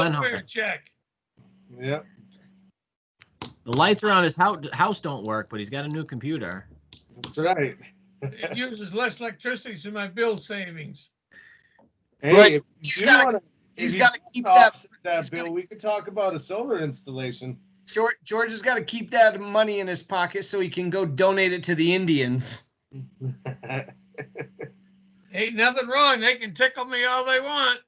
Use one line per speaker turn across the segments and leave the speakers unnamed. Glenhart.
Check.
Yeah.
The lights around his hou- house don't work, but he's got a new computer.
That's right.
It uses less electricity than my bill savings.
Right,
Hey, if
he's
you
gotta-
wanna-
He's
if you Oh.
got to
wanna
keep that.
offset That
he's gotta-
bill, we could talk about a solar installation.
George, George has got to keep that money in his pocket so he can go donate it to the Indians.
Ain't nothing wrong. They can tickle me all they want.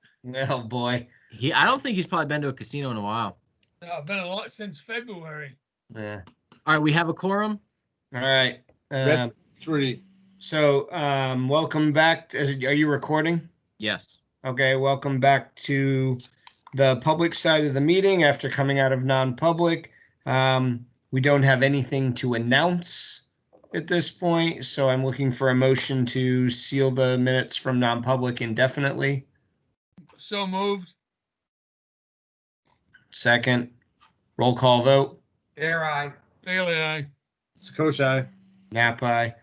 Oh boy.
He, I don't think he's probably been to a casino in a while.
No, I've been a lot since February.
Yeah.
All right, we have a quorum.
All right. Um,
Red Three.
so, um, welcome back. to- is it- are you recording?
Yes.
Okay. Welcome back to the public side of the meeting after coming out of non-public. Um, we don't have anything to announce at this point, so I'm looking for a motion to seal the minutes from non-public indefinitely.
So moved.
Second, roll call vote.
Air I. Bailey, aye.
Sakoshai.
Napa.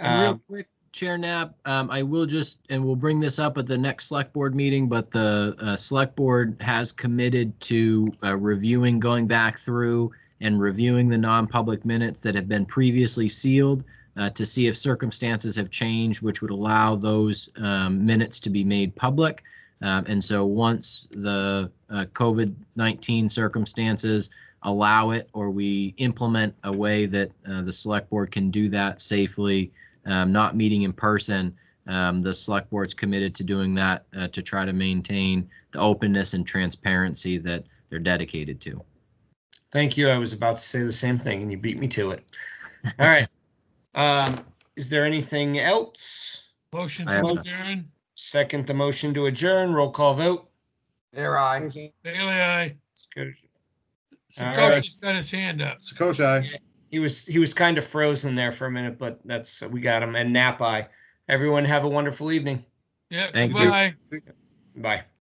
And
Um,
real quick, Chair Knapp, um, I will just, and we'll bring this up at the next select board meeting, but the uh, select board has committed to uh, reviewing, going back through and reviewing the non-public minutes that have been previously sealed uh, to see if circumstances have changed, which would allow those um, minutes to be made public. Um, And so once the uh, COVID-19 circumstances allow it or we implement a way that uh, the select board can do that safely, um, not meeting in person. Um, the select board's committed to doing that uh, to try to maintain the openness and transparency that they're dedicated to.
Thank you. I was about to say the same thing and you beat me to it. All right. Um, is there anything else?
Motion
I
to
have none.
adjourn.
Second the motion to adjourn, roll call vote.
Air I.
Bailey, aye.
All right.
Sakoshi's got his hand up.
Sakoshai.
He was, he was kind of frozen there for a minute, but that's, we got him and nap eye. Everyone have a wonderful evening.
Yeah,
Thank you.
goodbye.
Bye.